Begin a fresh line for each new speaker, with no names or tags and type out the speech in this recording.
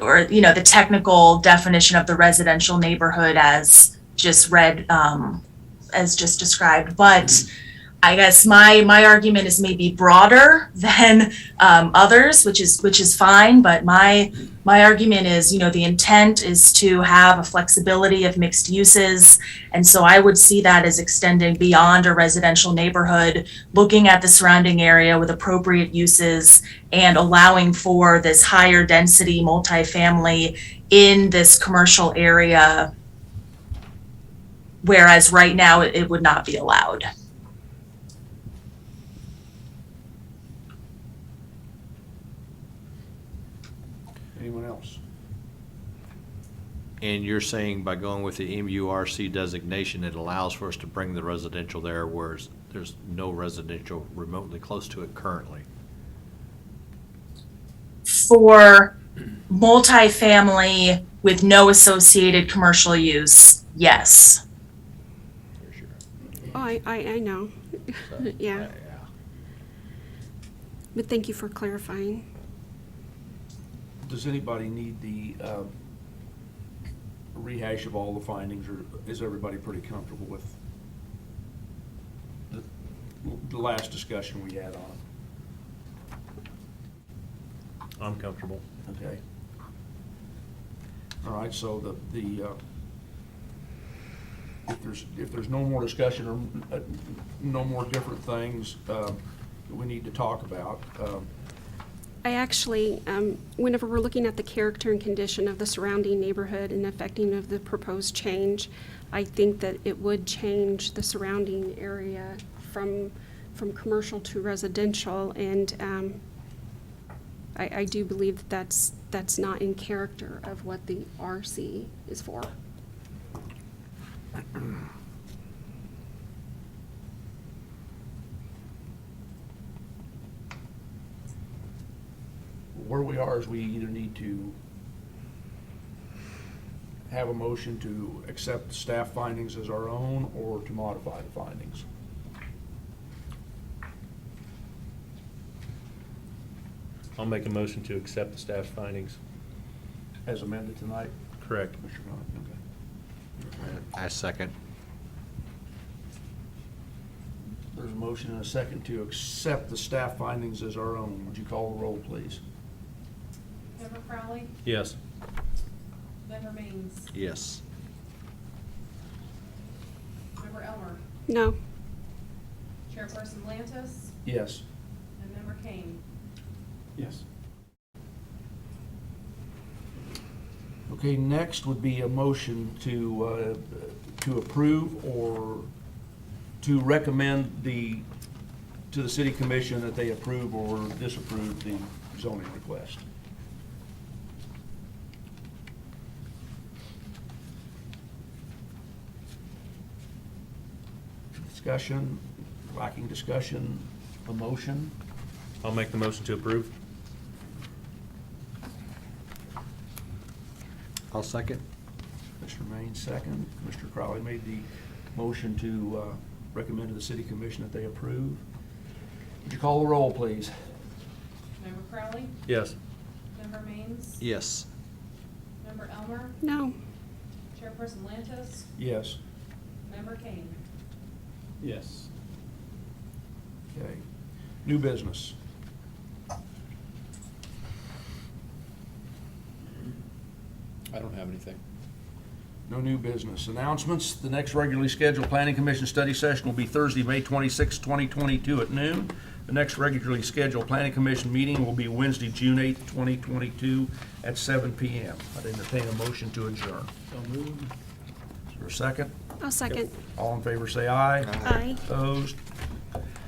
or, you know, the technical definition of the residential neighborhood as just read, um, as just described, but I guess my, my argument is maybe broader than, um, others, which is, which is fine, but my, my argument is, you know, the intent is to have a flexibility of mixed uses. And so I would see that as extending beyond a residential neighborhood, looking at the surrounding area with appropriate uses and allowing for this higher density multifamily in this commercial area. Whereas right now it, it would not be allowed.
Anyone else?
And you're saying by going with the MURC designation, it allows for us to bring the residential there, whereas there's no residential remotely close to it currently?
For multifamily with no associated commercial use, yes.
Oh, I, I, I know,
So,
Yeah. but thank you for clarifying.
Does anybody need the uh, rehash of all the findings, or is everybody pretty comfortable with the- the last discussion we had on it?
I'm comfortable.
Okay. All right, so the, the, uh, if there's, if there's no more discussion or uh, no more different things um, that we need to talk about, um,
I actually, um, whenever we're looking at the character and condition of the surrounding neighborhood and affecting of the proposed change, I think that it would change the surrounding area from, from commercial to residential, and, um, I, I do believe that that's, that's not in character of what the RC is for.
where we are is we either need to have a motion to accept the staff findings as our own or to modify the findings.
I'll make a motion to accept the staff's findings.
As amended tonight,
Correct.
Commissioner Ryan, okay.
I second.
There's a motion and a second to accept the staff findings as our own. Would you call the roll, please?
Member Crowley,
Yes.
member Means,
Yes.
member Elmer,
No,
chairperson Lantis,
Yes.
and member Kane.
Yes. Okay, next would be a motion to, uh, to approve or to recommend the, to the city commission that they approve or disapprove the zoning request. Discussion, lacking discussion, a motion?
I'll make the motion to approve.
I'll second.
Mr. Maines, second. Mr. Crowley made the motion to uh, recommend to the city commission that they approve. Would you call the roll, please?
Member Crowley,
Yes.
member Means,
Yes.
member Elmer,
no,
chairperson Lantis,
Yes.
member Kane.
Yes.
Okay. New business.
I don't have anything.
No new business. Announcements. The next regularly scheduled planning commission study session will be Thursday, May 26, 2022 at noon. The next regularly scheduled planning commission meeting will be Wednesday, June 8, 2022 at 7 PM. I'd entertain a motion to adjourn. Is there a second?
I'll second.
All in favor, say aye.
Aye.
Opposed?